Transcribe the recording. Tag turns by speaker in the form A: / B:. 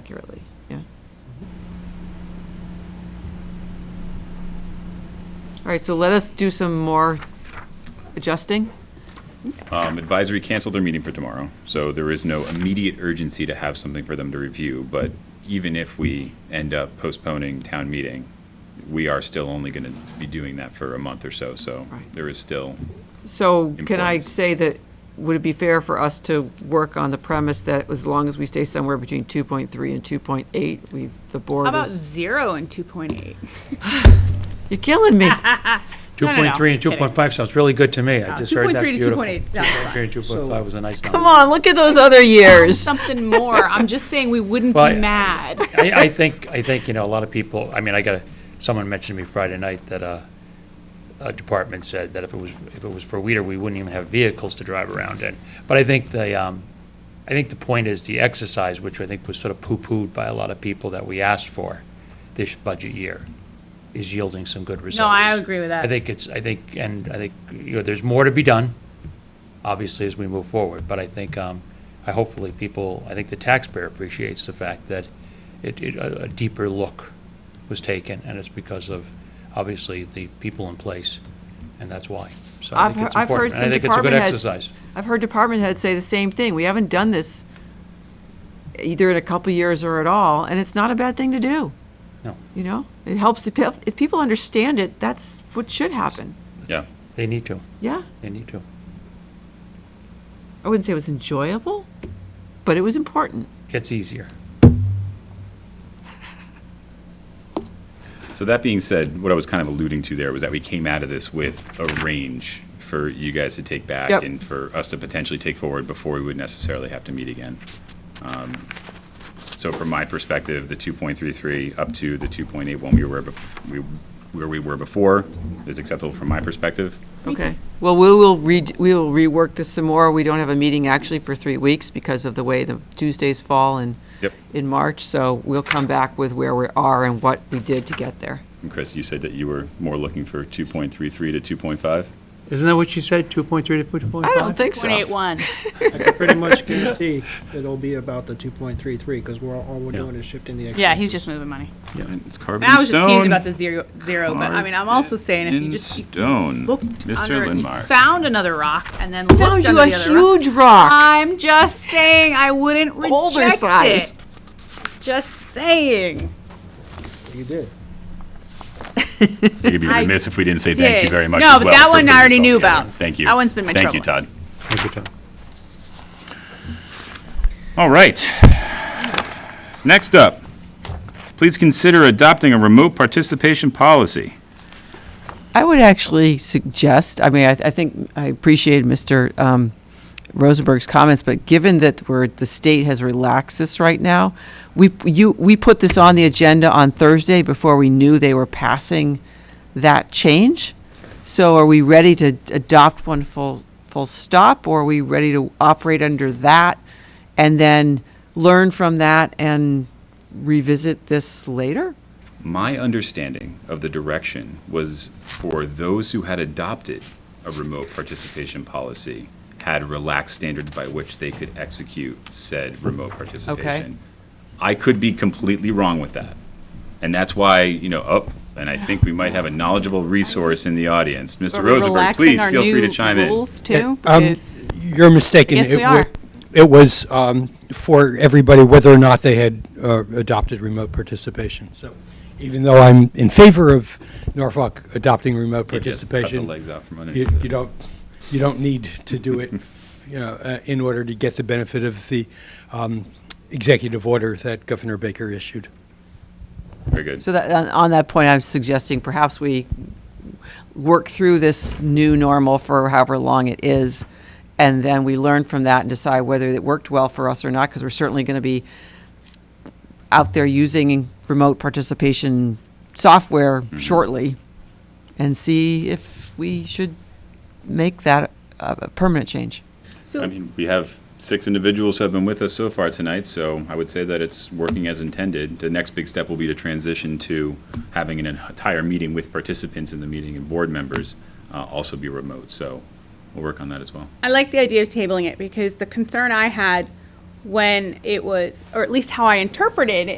A: accurately, yeah. All right, so let us do some more adjusting.
B: Um, Advisory canceled their meeting for tomorrow, so there is no immediate urgency to have something for them to review. But even if we end up postponing town meeting, we are still only going to be doing that for a month or so, so
A: Right.
B: there is still,
A: So can I
B: Importance.
A: say that, would it be fair for us to work on the premise that as long as we stay somewhere between 2.3 and 2.8, we, the
C: How
A: board
C: about
A: is,
C: zero and two point eight?
A: you're killing me.
C: No, no, no,
D: 2.3 and
C: kidding.
D: 2.5 sounds really good to me. I just
C: Two
D: heard
C: point
D: that
C: three to
D: beautiful.
C: two point eight sounds fine.
D: 2.3 and 2.5 was a nice number.
A: Come on, look at those other years.
C: Something more. I'm just saying we wouldn't
D: Well, I-
C: be mad.
D: I, I think, I think, you know, a lot of people, I mean, I got, a- someone mentioned to me Friday night that uh, a department said that if it was, if it was for Weider, we wouldn't even have vehicles to drive around in. But I think the, um, I think the point is the exercise, which I think was sort of poo-pooed by a lot of people that we asked for this budget year, is yielding some good results.
C: I agree with that.
D: I think it's, I think, and I think, you know, there's more to be done, obviously, as we move forward. But I think, um, I hopefully people, I think the taxpayer appreciates the fact that it, it, a a deeper look was taken, and it's because of, obviously, the people in place, and that's why. So I
A: I've,
D: think
A: heard-
D: it's
A: I've heard
D: important, and
A: some
D: I think it's a good
A: department heads.
D: exercise.
A: I've heard department heads say the same thing. We haven't done this either in a couple years or at all, and it's not a bad thing to do.
D: No.
A: You know, it helps, if, pe- if people understand it, that's what should happen.
B: yeah.
D: They need to,
A: Yeah,
D: they need to.
A: I wouldn't say it was enjoyable, but it was important.
D: Gets easier.
B: So that being said, what I was kind of alluding to there was that we came out of this with a range for you guys to take back
A: Yep.
B: and for us to potentially take forward before we would necessarily have to meet again. Um, So from my perspective, the 2.33 up to the 2.81 we were, bef- we- where we were before is acceptable from my perspective.
A: Okay. Well, we will read, we will rework this some more. We don't have a meeting actually for three weeks because of the way the Tuesdays fall in,
B: Yep.
A: in March. So we'll come back with where we are and what we did to get there.
B: And Chris, you said that you were more looking for 2.33 to 2.5?
D: Isn't that what you said, 2.3 to 2.5?
A: I don't think so.
C: Point eight one.
E: I can pretty much guarantee it'll be about the two point three three, because we're, all we're doing is shifting the.
C: Yeah, he's just moving money.
B: Yeah, it's carved in
C: I was just teasing
B: stone.
C: about the zero, zero, but I mean, I'm also saying if you
B: In
C: just you
B: stone,
C: looked
B: Mr.
C: under, you
B: Lindmark.
C: found another rock and then
A: Found
C: looked
A: you
C: under
A: a
C: the other rock.
A: huge rock.
C: I'm just saying I wouldn't
A: Boulder
C: reject
A: size.
C: it. Just saying.
E: You did.
B: You'd be
C: I
B: remiss if we didn't say thank you
C: did.
B: very much
C: No,
B: as
C: but
B: well
C: that
B: for
C: one I
B: putting this
C: already
B: all
C: knew
B: together.
C: about.
B: Thank you.
C: That one's been my
B: Thank you, Todd.
C: trouble.
D: Thank you, Tom.
B: All right. Next up, please consider adopting a remote participation policy.
A: I would actually suggest, I mean, I, I think I appreciate Mr. Um, Rosenberg's comments, but given that we're, the state has relaxed this right now, we, you, we put this on the agenda on Thursday before we knew they were passing that change. So are we ready to adopt one full, full stop, or are we ready to operate under that and then learn from that and revisit this later?
B: My understanding of the direction was for those who had adopted a remote participation policy had relaxed standards by which they could execute said remote participation. I could be completely wrong with that. And that's why, you know, oh, and I think we might have a knowledgeable resource in the audience. Mr. Rosenberg, please feel free to chime in.
C: too,
F: Um,
C: because
F: You're mistaken.
C: Yes,
F: It
C: we
F: wa-
C: are.
F: It was um, for everybody, whether or not they had uh, adopted remote participation. So even though I'm in favor of Norfolk adopting remote
B: He just cut the
F: participation,
B: legs out from
F: you
B: underneath
F: you don't, you don't need to do it, you know, uh, in order to get the benefit of the um, executive order that Governor Baker issued.
B: Very good.
A: So that, on- on that point, I'm suggesting perhaps we work through this new normal for however long it is, and then we learn from that and decide whether it worked well for us or not, because we're certainly going to be out there using remote participation software shortly, and see if we should make that a a permanent change.
B: I mean, we have six individuals who have been with us so far tonight, so I would say that it's working as intended. The next big step will be to transition to having an entire meeting with participants in the meeting and board members uh, also be remote, so we'll work on that as well.
C: I like the idea of tabling it because the concern I had when it was, or at least how I interpreted